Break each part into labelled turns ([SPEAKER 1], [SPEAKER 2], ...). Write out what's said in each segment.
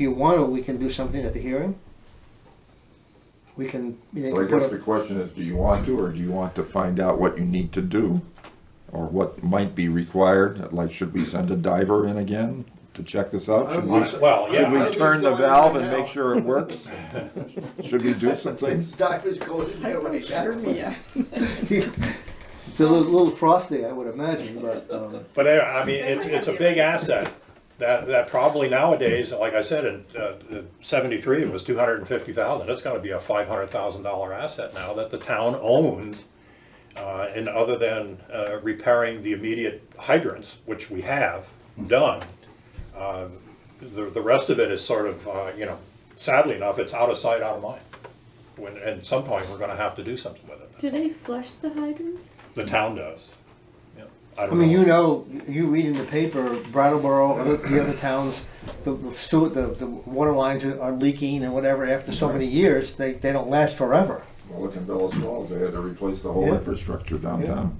[SPEAKER 1] you want to, we can do something at the hearing. We can, you know,
[SPEAKER 2] So I
[SPEAKER 1] put
[SPEAKER 2] guess
[SPEAKER 1] a-
[SPEAKER 2] the question is, do you want to, or do you want to find out what you need to do? Or what might be required, like should we send a diver in again to check this out? Should we,
[SPEAKER 3] Well,
[SPEAKER 2] should
[SPEAKER 3] yeah,
[SPEAKER 2] we
[SPEAKER 4] think
[SPEAKER 2] turn
[SPEAKER 4] it's
[SPEAKER 2] the
[SPEAKER 4] going in
[SPEAKER 2] valve
[SPEAKER 4] right
[SPEAKER 2] and
[SPEAKER 4] now.
[SPEAKER 2] make sure it works? Should we do some things?
[SPEAKER 4] Divers going in there right
[SPEAKER 5] Sure,
[SPEAKER 4] now.
[SPEAKER 5] yeah.
[SPEAKER 1] it's a little, little frosty, I would imagine, but, um,
[SPEAKER 3] but I I mean, it, it's a big asset that, that probably nowadays, like I said, in uh, seventy-three, it was two hundred and fifty thousand. It's gonna be a five hundred thousand dollar asset now that the town owns. Uh, and other than, uh, repairing the immediate hydrants, which we have done, uh, the, the rest of it is sort of, uh, you know, sadly enough, it's out of sight, out of mind. When, and some point, we're gonna have to do something with it.
[SPEAKER 5] Do they flush the hydrants?
[SPEAKER 3] The town does. Yeah, I
[SPEAKER 1] I
[SPEAKER 3] don't know.
[SPEAKER 1] mean, you know, you read in the paper, Brattleboro, other- the other towns, the, the sewer, the, the water lines are are leaking and whatever, after so many years, they, they don't last forever.
[SPEAKER 2] Well, look in Bellas Falls, they had to replace the whole
[SPEAKER 1] Yeah.
[SPEAKER 2] infrastructure downtown.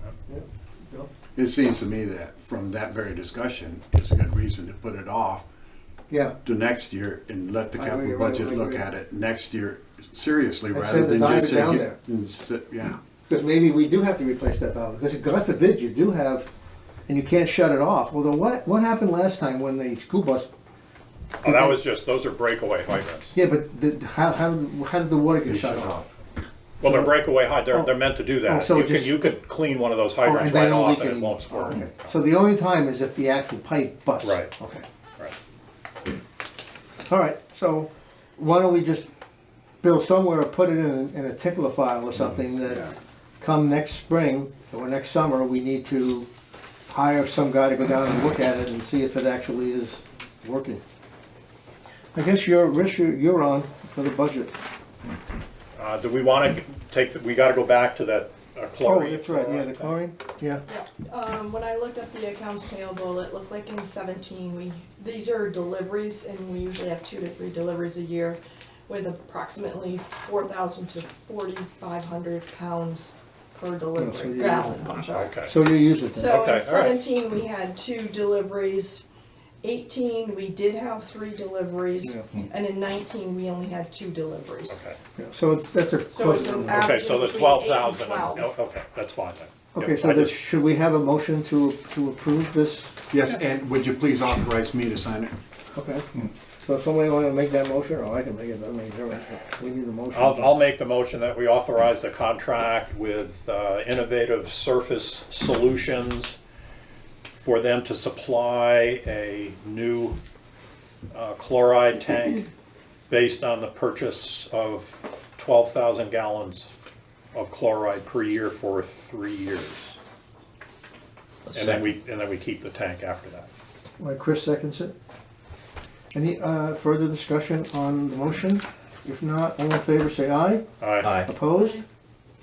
[SPEAKER 6] It seems to me that from that very discussion, it's a good reason to put it off
[SPEAKER 1] Yeah,
[SPEAKER 6] to next year and let the
[SPEAKER 4] I agree,
[SPEAKER 6] capital
[SPEAKER 4] I agree,
[SPEAKER 6] budget
[SPEAKER 4] I
[SPEAKER 6] look
[SPEAKER 4] agree.
[SPEAKER 6] at it next year seriously
[SPEAKER 1] And
[SPEAKER 6] rather
[SPEAKER 1] send the
[SPEAKER 6] than just
[SPEAKER 1] divers
[SPEAKER 6] say.
[SPEAKER 1] down
[SPEAKER 6] yeah,
[SPEAKER 1] there.
[SPEAKER 6] and sit- Yeah,
[SPEAKER 1] because maybe we do have to replace that valve, because God forbid, you do have, and you can't shut it off, although what, what happened last time when the school bus
[SPEAKER 3] Oh, that was just, those are breakaway hydrants.
[SPEAKER 1] Yeah, but the, how, how, did- how did the water get shut off?
[SPEAKER 3] Well, they're breakaway hydrants, they're, they're meant to do
[SPEAKER 1] Oh,
[SPEAKER 3] that.
[SPEAKER 1] so
[SPEAKER 3] You can,
[SPEAKER 1] just-
[SPEAKER 3] you could clean one of those
[SPEAKER 1] Oh,
[SPEAKER 3] hydrants
[SPEAKER 1] and they
[SPEAKER 3] right
[SPEAKER 1] don't
[SPEAKER 3] off
[SPEAKER 1] leak
[SPEAKER 3] and it
[SPEAKER 1] anymore.
[SPEAKER 3] won't squirt.
[SPEAKER 1] Okay. So the only time is if the actual pipe busts.
[SPEAKER 3] Right.
[SPEAKER 1] Okay.
[SPEAKER 3] Right.
[SPEAKER 1] All right, so why don't we just, Bill, somewhere, put it in, in a tickler file
[SPEAKER 3] Mm-hmm.
[SPEAKER 1] or something that come next spring or next summer, we need to hire some guy to go down and look at it and see if it actually is working. I guess you're, Rich, you're you're on for the budget.
[SPEAKER 3] Uh, do we wanna take, the- we gotta go back to that uh,
[SPEAKER 1] Oh,
[SPEAKER 3] chlorine.
[SPEAKER 1] that's right, yeah, the chlorine, yeah.
[SPEAKER 7] Um, when I looked up the accounts payable, it looked like in seventeen, we, these are deliveries, and we usually have two to three deliveries a year with approximately four thousand to forty-five hundred pounds per
[SPEAKER 1] Yeah, so
[SPEAKER 7] delivery,
[SPEAKER 1] you-
[SPEAKER 7] gallons, I'm sorry.
[SPEAKER 3] Okay,
[SPEAKER 1] So you use it then?
[SPEAKER 3] Okay,
[SPEAKER 7] So
[SPEAKER 3] all
[SPEAKER 7] in
[SPEAKER 3] right.
[SPEAKER 7] seventeen, we had two deliveries, eighteen, we did have three deliveries,
[SPEAKER 1] Yeah.
[SPEAKER 7] and in nineteen, we only had two deliveries.
[SPEAKER 3] okay.
[SPEAKER 1] So it's, that's a
[SPEAKER 7] So it's
[SPEAKER 1] close
[SPEAKER 7] an
[SPEAKER 1] number.
[SPEAKER 7] average
[SPEAKER 3] Okay, so the
[SPEAKER 7] between eight
[SPEAKER 3] twelve
[SPEAKER 7] and
[SPEAKER 3] thousand, Oh,
[SPEAKER 7] 12.
[SPEAKER 3] okay, that's fine then.
[SPEAKER 1] Okay,
[SPEAKER 3] Yep,
[SPEAKER 1] so
[SPEAKER 3] I
[SPEAKER 1] that,
[SPEAKER 3] just-
[SPEAKER 1] should we have a motion to, to approve this?
[SPEAKER 6] yes, and would you please authorize me to sign it?
[SPEAKER 1] Okay. Hmm. So if somebody wanna make that motion, or I can make it, I mean, we need a motion.
[SPEAKER 3] I'll, I'll make the motion that we authorize the contract with uh, Innovative Surface Solutions for them to supply a new uh, chloride tank based on the purchase of 12,000 gallons of chloride per year for three years. And then we, and then we keep the tank after that.
[SPEAKER 1] All right, Chris seconds it. Any, uh, further discussion on the motion? If not, all in favor, say aye.
[SPEAKER 3] All right,
[SPEAKER 1] Opposed?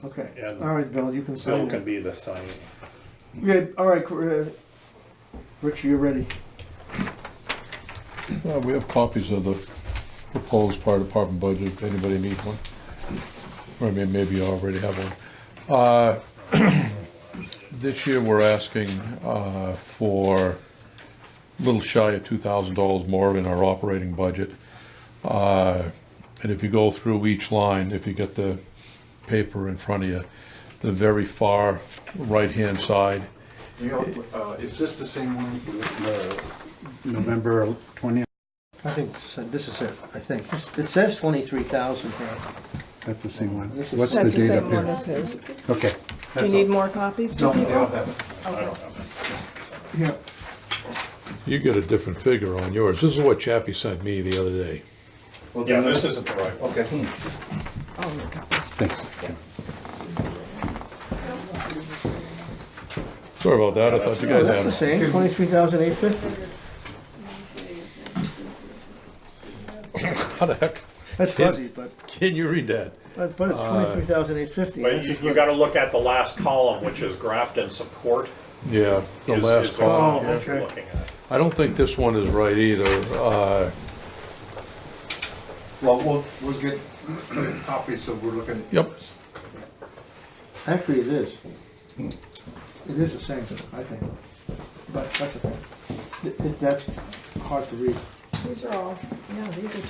[SPEAKER 1] Okay,
[SPEAKER 3] And-
[SPEAKER 1] all right, Bill, you can
[SPEAKER 3] Bill
[SPEAKER 1] sign
[SPEAKER 3] can
[SPEAKER 1] it.
[SPEAKER 3] be the signing.
[SPEAKER 1] Yeah, all right, Cor- uh, Richard, you're ready.
[SPEAKER 8] Well, we have copies of the proposed fire department budget, if anybody needs one. Or may- maybe you already have one. Uh, This year, we're asking uh, for a little shy of two thousand dollars more in our operating budget. Uh, And if you go through each line, if you get the paper in front of you, the very far right-hand side,
[SPEAKER 6] uh, Is this the same one? November twentieth,
[SPEAKER 1] I think this is, this is it, I think. This, it says twenty-three thousand here.
[SPEAKER 6] that's the same one.
[SPEAKER 1] This is-
[SPEAKER 6] What's the
[SPEAKER 7] That's the
[SPEAKER 6] date
[SPEAKER 7] same
[SPEAKER 6] up
[SPEAKER 7] one
[SPEAKER 6] here?
[SPEAKER 7] as his.
[SPEAKER 6] Okay.
[SPEAKER 7] Do you need more copies for
[SPEAKER 6] No, they all
[SPEAKER 7] people?
[SPEAKER 6] have it.
[SPEAKER 1] Yeah.
[SPEAKER 8] you get a different figure on yours. This is what Chappie sent me the other day.
[SPEAKER 6] Well,
[SPEAKER 3] Yeah,
[SPEAKER 6] then-
[SPEAKER 3] this isn't the right one.
[SPEAKER 6] Okay,
[SPEAKER 7] Oh, no copies.
[SPEAKER 6] thanks.
[SPEAKER 8] Sorry about that, I thought you guys
[SPEAKER 1] That's
[SPEAKER 8] had
[SPEAKER 1] the
[SPEAKER 8] it.
[SPEAKER 1] same, twenty-three thousand eight fifty.
[SPEAKER 8] How the heck
[SPEAKER 1] That's fuzzy, but,
[SPEAKER 8] can you read that?
[SPEAKER 1] but but it's twenty-three thousand eight fifty.
[SPEAKER 3] Uh, But you, you gotta look at the last column, which is Grafton Support.
[SPEAKER 8] Yeah, the
[SPEAKER 3] is-
[SPEAKER 8] last
[SPEAKER 3] is
[SPEAKER 8] column.
[SPEAKER 3] column that
[SPEAKER 1] okay.
[SPEAKER 3] you're looking at.
[SPEAKER 8] I don't think this one is right either. Uh,
[SPEAKER 4] Well, we'll,
[SPEAKER 6] We'll get copies, so we're looking.
[SPEAKER 8] Yep,
[SPEAKER 1] Actually, it is. Hmm. It is the same, I think, but that's okay. Th- th- That's hard to read.
[SPEAKER 7] These are all, yeah, these are